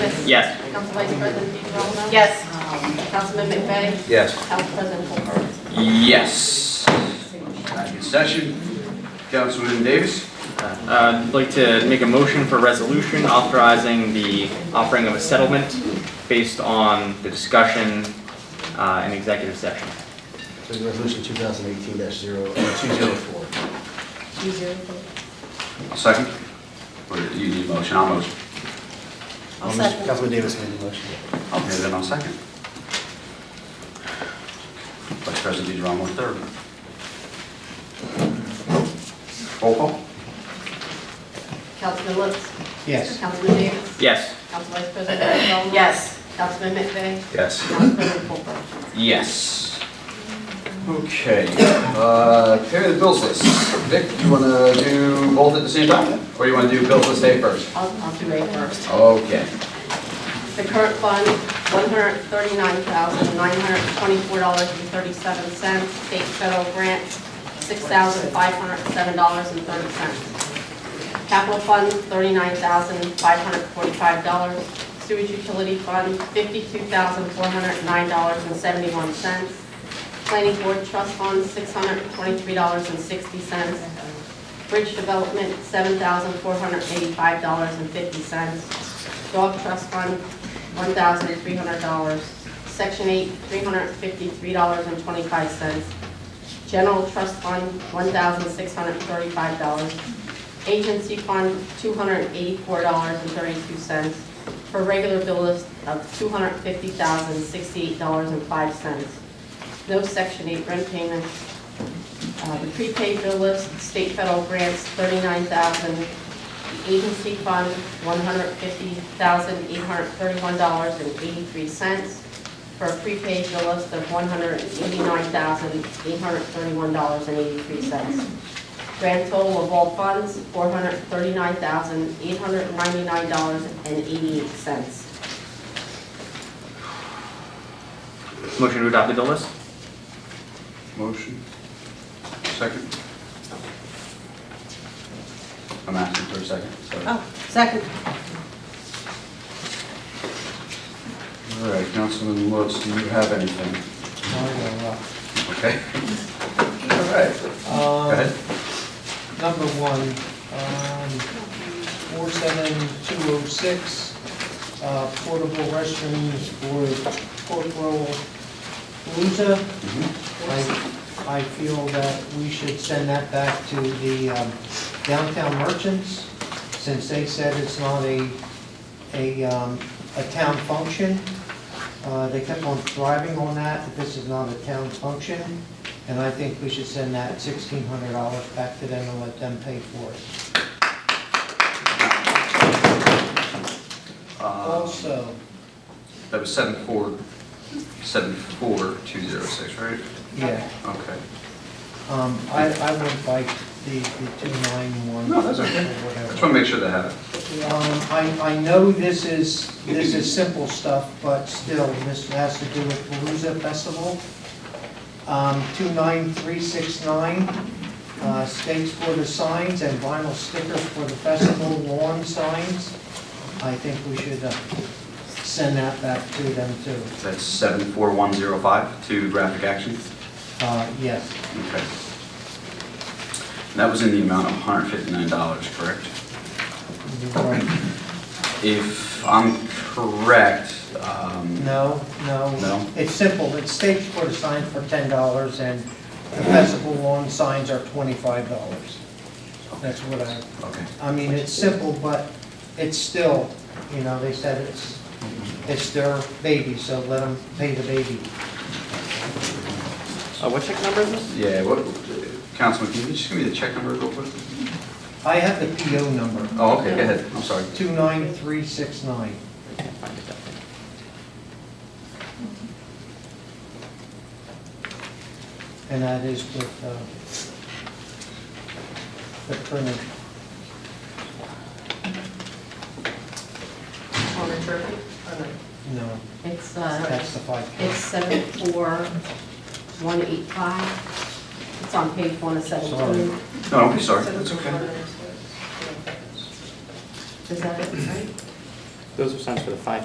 Smith. Yes. Council Vice President DeGrova. Yes. Councilman McVeigh. Yes. Council President Colbert. Yes. Back in session. Councilman Davis? Uh, I'd like to make a motion for resolution authorizing the offering of a settlement based on the discussion uh, in executive session. Resolution 2018-0, uh, 204. Second. Or you need a motion, I'll motion. I'll Um, second. Councilman Davis made the motion. Okay, then I'll second. Vice President DeGrom on third. Roll call? Councilman Lutz. Yes. Councilman Davis. Yes. Council Vice President DeGrova. Yes. Councilman McVeigh. Yes. Council President Colbert. Yes. Okay, uh, carry the bills list. Vic, you want to do both at the same time? Or you want to do bills list A first? I'll, I'll do A first. Okay. The current fund, one hundred thirty-nine thousand, nine hundred twenty-four dollars and thirty-seven cents. State federal grant, six thousand, five hundred seven dollars and thirty cents. Capital fund, thirty-nine thousand, five hundred forty-five dollars. Sewage utility fund, fifty-two thousand, four hundred nine dollars and seventy-one cents. Planning board trust fund, six hundred twenty-three dollars and sixty cents. Bridge development, seven thousand, four hundred eighty-five dollars and fifty cents. Dog trust fund, one thousand three hundred dollars. Section eight, three hundred fifty-three dollars and twenty-five cents. General trust fund, one thousand six hundred thirty-five dollars. Agency fund, two hundred eighty-four dollars and thirty-two cents. For regular bill list of two hundred fifty thousand sixty-eight dollars and five cents. No section eight rent payments. Uh, The prepaid bill list, state federal grants, thirty-nine thousand the agency fund, one hundred fifty thousand, eight hundred thirty-one dollars and eighty-three cents for a prepaid bill list of one hundred eighty-nine thousand, eight hundred thirty-one dollars and eighty-three cents. Grand total of all funds, four hundred thirty-nine thousand, eight hundred ninety-nine dollars and eighty-eight cents. Motion to adopt the bill list? Motion. Second. I'm asking for a second, sorry. Oh, second. All right, Councilman Lutz, do you have anything? Okay. All right, go Um, ahead. Number one, um, 47206, uh, portable restrooms for Corporal Palooza. I, I feel that we should send that back to the um, downtown merchants, since they said it's not a, a, um, a town function. Uh, They kept on thriving on that, that this is not a town function. And I think we should send that sixteen hundred dollars back to them and let them pay for it. Uh, Also, That was seven four, seven four two zero six, right? yeah, Okay. um, I, I went by the, the two nine one. No, that's okay. I just want to make sure they have it. Um, I, I know this is, this is simple stuff, but still, this has to do with Palooza Festival. Um, 29369, uh, stakes for the signs and vinyl stickers for the festival lawn signs. I think we should, uh, send that back to them too. That's seven four one zero five to Graphic Action. Uh, yes, Okay. And That was in the amount of hundred fifty-nine dollars, correct? you're right. If I'm correct, um, No, no. No? It's simple, it's stakes for the signs for ten dollars and the festival lawn signs are twenty-five dollars. That's what I, okay. I mean, it's simple, but it's still, you know, they said it's, it's their baby, so let them pay the baby. Uh, What check number is this? Yeah, what, Councilman, can you just give me the check number real quick? I have the PO number, Oh, okay, go ahead, I'm sorry. 29369. And that is with uh, the printer. On the turkey? No, It's, uh, that's the 5K. it's seven four one eight five. It's on page one of seventeen. No, don't be sorry, that's okay. Is that it, right? Those are signs for the five